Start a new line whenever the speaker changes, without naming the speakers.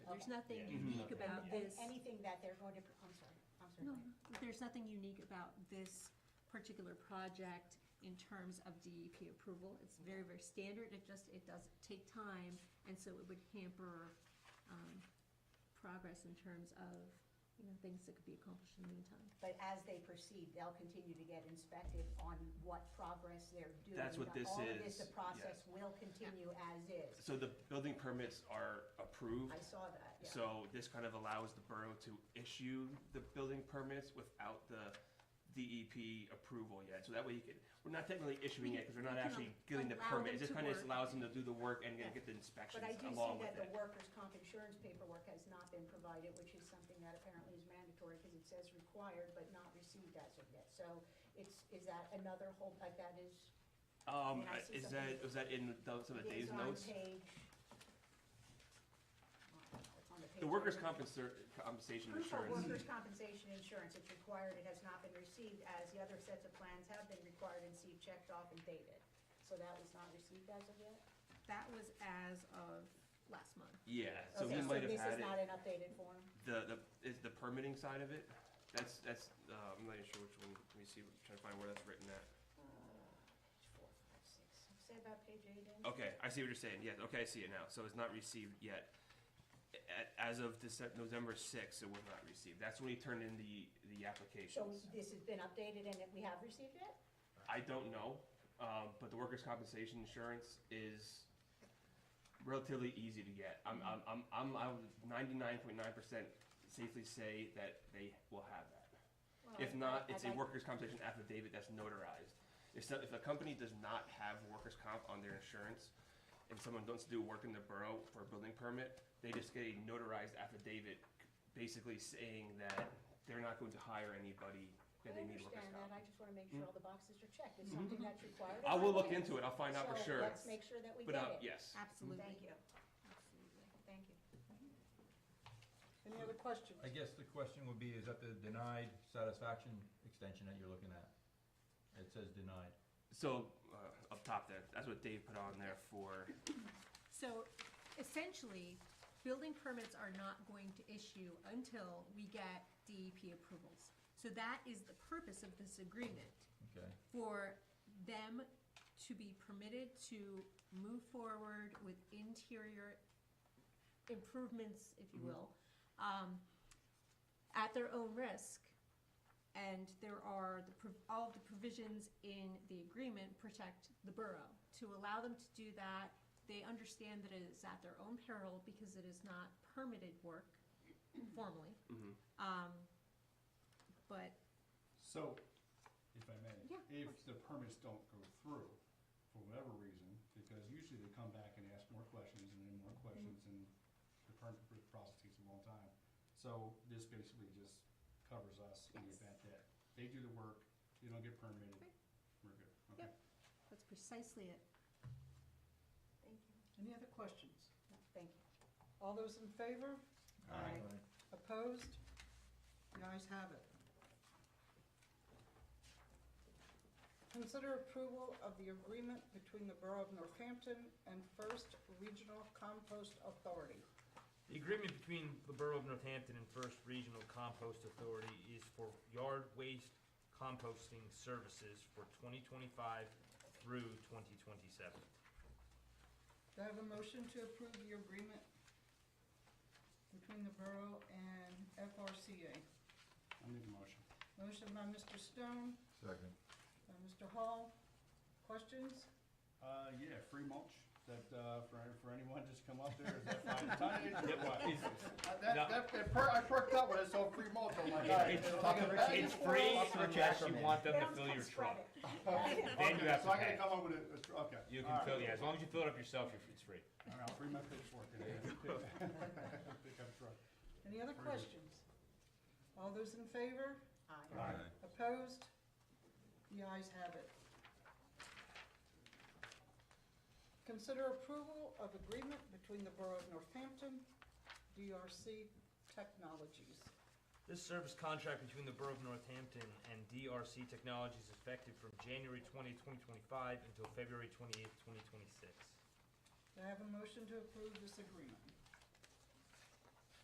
there's nothing
Yeah.
unique
Mhm.
about
Yeah.
this,
um, Anything that they're going to, pr- I'm sorry, I'm sorry.
no,
Claire.
there's nothing unique about this particular project in terms of DEP approval. It's very, very standard, it just, it does take time, and so it would hamper, um, progress in terms of, you know, things that could be accomplished in the meantime.
But as they proceed, they'll continue to get inspected on what progress they're doing.
That's what this
All of this,
is,
the process
yeah.
will continue as is.
So the building permits are approved.
I saw that, yeah.
So this kind of allows the borough to issue the building permits without the DEP approval yet. So that way you could, we're not technically issuing it because we're not
We can
actually getting the
allow
permit.
them
It just
to
kind of just
work.
allows them to do the work and
Yeah.
get the
But I
inspections
do
along
see
with
that the
it.
workers' comp insurance paperwork has not been provided, which is something that apparently is mandatory because it says required but not received as of yet. So it's, is that another hold, like that is,
Um,
And I see
is
something-
that, was that in the- some of
is
Dave's
on
notes?
page. I don't know, it's on page
The workers'
I'm-
compensa- compensation
Proof of
insurance.
workers' compensation insurance, it's required, it has not been received, as the other sets of plans have been required and see checked off and dated. So that was not received as of yet?
That was as of last month.
Yeah, so
Okay,
he might have
This
had
is not
it.
an updated form?
The, the, is the permitting side of it? That's, that's, uh, I'm not even sure which one. Let me see, trying to find where that's written at.
Uh, Page four, five, six, say about page eight in.
Okay, I see what you're saying. Yes, okay, I see it now. So it's not received yet. A- As of Dece- November sixth, it was not received. That's when he turned in the, the
So
applications.
this has been updated and that we have received it?
I don't know, um, but the workers' compensation insurance is relatively easy to get. I'm, I'm, I'm, I'm, I would ninety-nine point nine percent safely say that they will have that.
Oh,
If not, it's a workers' compensation affidavit that's notarized. If, so- if a company does not have workers' comp on their insurance, and someone wants to do work in the borough for a building permit, they just get a notarized affidavit, basically saying that they're not going to hire anybody that they need
I
workers'
understand that, I
comp.
just want to make sure all the boxes are checked, it's something that's required.
I will look into it, I'll find out for
So
sure.
let's make sure that we
But, uh,
get it.
yes,
Absolutely.
Thank you,
Absolutely.
thank you.
Any other questions?
I guess the question would be, is that the denied satisfaction extension that you're looking at? It says denied.
so, uh, up top there, that's what Dave put on there for,
So essentially, building permits are not going to issue until we get DEP approvals. So that is the purpose of this agreement,
Okay,
for them to be permitted to move forward with interior improvements, if you will, um, at their own risk. And there are, the prov- all of the provisions in the agreement protect the borough. To allow them to do that, they understand that it is at their own peril because it is not permitted work formally.
mm-hmm.
Um, But
So, if I may.
Yeah, of course.
If the permits don't go through, for whatever reason, because usually they come back and ask more questions and then more
Mm-hmm.
questions, and the permit process takes a long time. So this basically just covers us in the
Yes.
event that they do the work, they don't get permitted,
Right.
we're good. Okay.
Yep, that's precisely it.
Thank you.
Any other questions?
No, Thank you.
All those in favor?
Aye.
Opposed? The ayes have it. Consider approval of the agreement between the Borough of Northampton and First Regional Compost Authority.
The agreement between the Borough of Northampton and First Regional Compost Authority is for yard waste composting services for 2025 through 2027.
Do I have a motion to approve the agreement between the Borough and FRCA?
I'll make a motion.
Motion by Mr. Stone,
second.
by Mr. Hall. Questions?
Uh, yeah, free mulch, that, uh, for, for anyone, just come up there, is that five tonnage or what? Uh, That, that, that per- I perked up when I saw free mulch, I'm like, all right.
It's-
I'll get back.
It's free
Talk to Rich
unless you
Ackerman.
want them to
Bounce
fill
can
your
spread
truck.
it.
Then you
Okay,
have
So
to
I gotta
pay.
come up with a, okay.
You
all
can
right.
fill, yeah, as long as you fill it up yourself, you're- it's free.
All right, I'll bring my pitchfork in. Pick up truck.
Any other questions? All those in favor?
Aye.
Aye.
Opposed? The ayes have it. Consider approval of agreement between the Borough of Northampton, DRC Technologies.
This service contract between the Borough of Northampton and DRC Technologies is effective from January 20, 2025 until February 28, 2026.
Do I have a motion to approve this agreement?